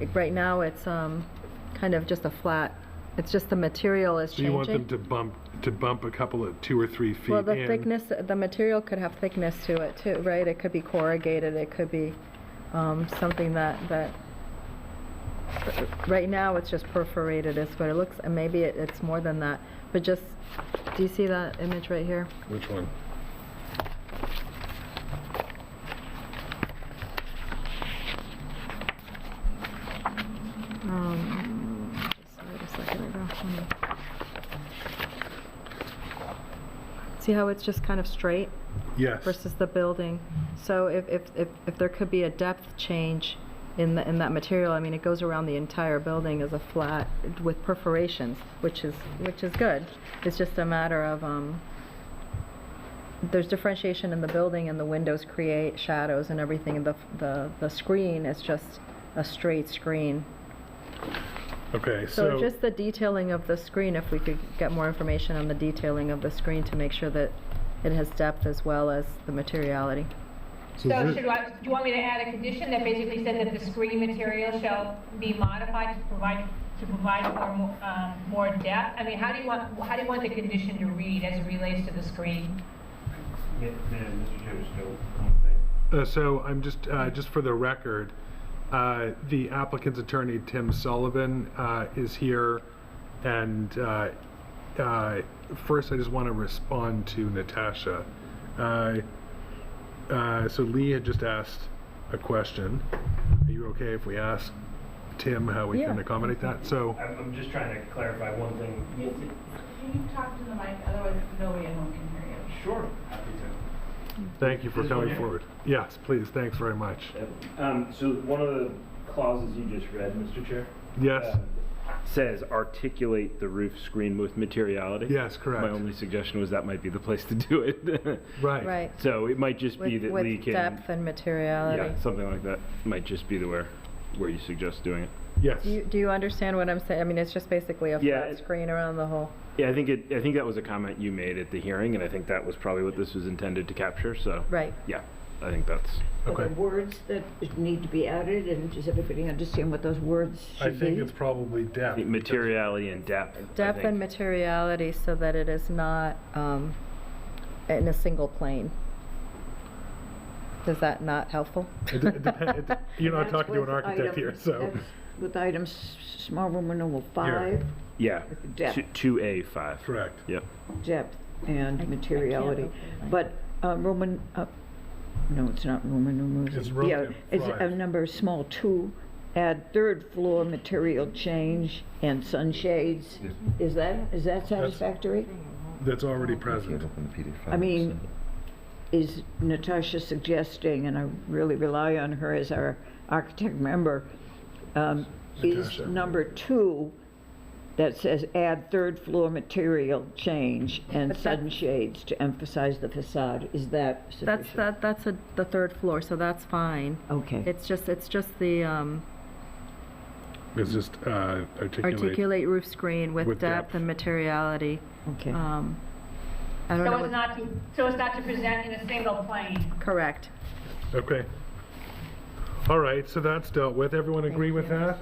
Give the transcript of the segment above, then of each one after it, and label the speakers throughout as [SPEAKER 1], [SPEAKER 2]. [SPEAKER 1] Like, Right now, it's um, kind of just a flat, it's just the material is
[SPEAKER 2] So you want them
[SPEAKER 1] changing.
[SPEAKER 2] to bump, to bump a couple of two or three feet in?
[SPEAKER 1] Well, the thickness, the material could have thickness to it too, right? It could be corrugated, it could be um, something that, that, right now, it's just perforated is what it looks, and maybe it- it's more than that. But just, do you see that image right here?
[SPEAKER 3] Which one?
[SPEAKER 1] Um, just wait a second, I don't wanna- See how it's just kind of straight
[SPEAKER 2] Yes.
[SPEAKER 1] versus the building? So if, if, if, if there could be a depth change in the, in that material, I mean, it goes around the entire building as a flat with perforations, which is, which is good. It's just a matter of, um, there's differentiation in the building and the windows create shadows and everything. And the, the, the screen is just a straight screen.
[SPEAKER 2] Okay,
[SPEAKER 1] So
[SPEAKER 2] so,
[SPEAKER 1] just the detailing of the screen, if we could get more information on the detailing of the screen to make sure that it has depth as well as the materiality.
[SPEAKER 3] So
[SPEAKER 4] So
[SPEAKER 3] thi-
[SPEAKER 4] should I, do you want me to add a condition that basically said that the screen material shall be modified to provide, to provide for more, um, more depth? I mean, how do you want, how do you want the condition to read as it relates to the screen?
[SPEAKER 5] Yeah, Madam Mr. Chair, just one thing.
[SPEAKER 2] uh, so I'm just, uh, just for the record, uh, the applicant's attorney, Tim Sullivan, uh, is here. And uh, uh, first, I just want to respond to Natasha. Uh, uh, So Lee had just asked a question. Are you okay if we ask Tim how we can
[SPEAKER 1] Yeah.
[SPEAKER 2] accommodate that? So.
[SPEAKER 5] I'm, I'm just trying to clarify one thing.
[SPEAKER 6] Can you talk to the mic, otherwise nobody at home can hear you.
[SPEAKER 5] Sure, happy to.
[SPEAKER 2] Thank you for
[SPEAKER 5] Is it
[SPEAKER 2] coming
[SPEAKER 5] okay?
[SPEAKER 2] forward. Yes, please, thanks very much.
[SPEAKER 5] Um, so one of the clauses you just read, Mr. Chair?
[SPEAKER 2] Yes.
[SPEAKER 5] um, Says articulate the roof screen with materiality.
[SPEAKER 2] Yes, correct.
[SPEAKER 5] My only suggestion was that might be the place to do it.
[SPEAKER 2] Right.
[SPEAKER 1] Right,
[SPEAKER 5] So it might just be
[SPEAKER 1] with,
[SPEAKER 5] that Lee
[SPEAKER 1] with
[SPEAKER 5] can.
[SPEAKER 1] depth and materiality.
[SPEAKER 5] Yeah, something like that. Might just be the where, where you suggest doing it.
[SPEAKER 2] Yes.
[SPEAKER 1] Do you, do you understand what I'm saying? I mean, it's just basically a
[SPEAKER 5] Yeah,
[SPEAKER 1] flat
[SPEAKER 5] it-
[SPEAKER 1] screen around the whole.
[SPEAKER 5] Yeah, I think it, I think that was a comment you made at the hearing, and I think that was probably what this was intended to capture, so.
[SPEAKER 1] Right.
[SPEAKER 5] Yeah, I think that's,
[SPEAKER 7] Are there
[SPEAKER 2] Okay.
[SPEAKER 7] words that need to be added, and does everybody understand what those words
[SPEAKER 2] I
[SPEAKER 7] should be?
[SPEAKER 2] think it's probably
[SPEAKER 5] I
[SPEAKER 2] depth.
[SPEAKER 5] think materiality and depth. I
[SPEAKER 1] Depth and
[SPEAKER 5] think.
[SPEAKER 1] materiality so that it is not um, in a single plane. Is that not helpful?
[SPEAKER 2] It de- it depen- it de- You're not
[SPEAKER 7] That's
[SPEAKER 2] talking to an
[SPEAKER 7] with
[SPEAKER 2] architect here,
[SPEAKER 7] items-
[SPEAKER 2] so.
[SPEAKER 7] that's With items, small room number five,
[SPEAKER 5] Yeah.
[SPEAKER 7] Depth.
[SPEAKER 5] Two A five.
[SPEAKER 2] Correct.
[SPEAKER 5] Yep.
[SPEAKER 7] depth and materiality. But uh, Roman, uh, no, it's not Roman numerals.
[SPEAKER 2] It's Roman
[SPEAKER 7] Yeah, It's a
[SPEAKER 2] five.
[SPEAKER 7] number small two, add third floor material change and sunshades. Is that, is that satisfactory?
[SPEAKER 2] That's already present.
[SPEAKER 7] I mean, is Natasha suggesting, and I really rely on her as our architect member, um, is
[SPEAKER 2] Natasha.
[SPEAKER 7] number two that says add third floor material change and
[SPEAKER 1] But
[SPEAKER 7] sun
[SPEAKER 1] that's-
[SPEAKER 7] shades to emphasize the facade, is that sufficient?
[SPEAKER 1] That's, that, that's a- the third floor, so that's fine.
[SPEAKER 7] Okay,
[SPEAKER 1] It's just, it's just the, um,
[SPEAKER 2] It's just uh, articulate.
[SPEAKER 1] articulate roof screen with
[SPEAKER 2] With
[SPEAKER 1] depth
[SPEAKER 2] depth.
[SPEAKER 1] and materiality.
[SPEAKER 7] okay.
[SPEAKER 1] Um, I don't
[SPEAKER 4] So
[SPEAKER 1] know,
[SPEAKER 4] it's
[SPEAKER 1] what-
[SPEAKER 4] not to, so it's not to present in a single plane.
[SPEAKER 1] correct.
[SPEAKER 2] Okay. All right, so that's dealt with. Everyone agree with that?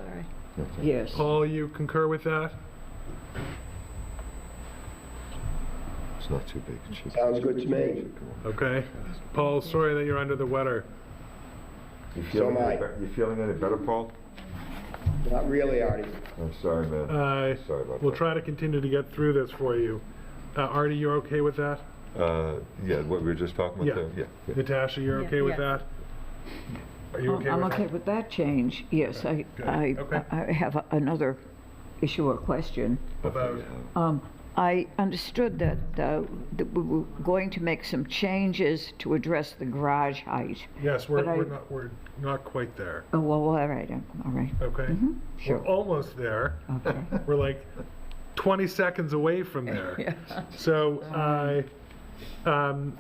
[SPEAKER 7] Yes.
[SPEAKER 2] Paul, you concur with that?
[SPEAKER 3] It's not too big. It's just-
[SPEAKER 8] Sounds good to me.
[SPEAKER 2] Okay. Paul, sorry that you're under the weather.
[SPEAKER 3] You
[SPEAKER 8] So
[SPEAKER 3] feeling
[SPEAKER 8] am I.
[SPEAKER 3] any be- you feeling any better, Paul?
[SPEAKER 8] Not really, Artie.
[SPEAKER 3] I'm sorry, man.
[SPEAKER 2] Uh,
[SPEAKER 3] Sorry about
[SPEAKER 2] We'll
[SPEAKER 3] that.
[SPEAKER 2] try to continue to get through this for you. Uh, Artie, you're okay with that?
[SPEAKER 3] Uh, yeah, what we were just talking
[SPEAKER 2] Yeah.
[SPEAKER 3] about there? Yeah. yeah.
[SPEAKER 2] Natasha, you're
[SPEAKER 1] Yeah,
[SPEAKER 2] okay with
[SPEAKER 1] yes.
[SPEAKER 2] that? Are you
[SPEAKER 7] Oh,
[SPEAKER 2] okay with that?
[SPEAKER 7] I'm okay with that change, yes. I,
[SPEAKER 2] good.
[SPEAKER 7] I,
[SPEAKER 2] Okay.
[SPEAKER 7] I have a- another issue or question.
[SPEAKER 2] About-
[SPEAKER 7] Um, I understood that, uh, that we were going to make some changes to address the garage height.
[SPEAKER 2] Yes, we're,
[SPEAKER 7] But I-
[SPEAKER 2] we're not, we're not quite there,
[SPEAKER 7] Oh, well, all right, uh, all right,
[SPEAKER 2] okay?
[SPEAKER 7] sure.
[SPEAKER 2] We're almost there.
[SPEAKER 7] okay.
[SPEAKER 2] We're like 20 seconds away from there. So I, um,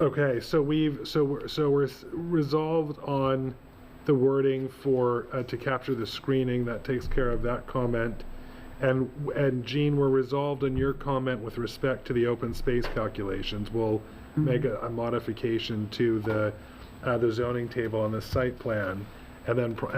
[SPEAKER 2] okay, so we've, so we're, so we're s- resolved on the wording for, uh, to capture the screening, that takes care of that comment. And, and Jean, we're resolved on your comment with respect to the open space calculations. We'll make a a modification to the, uh, the zoning table on the site plan. and then, pro-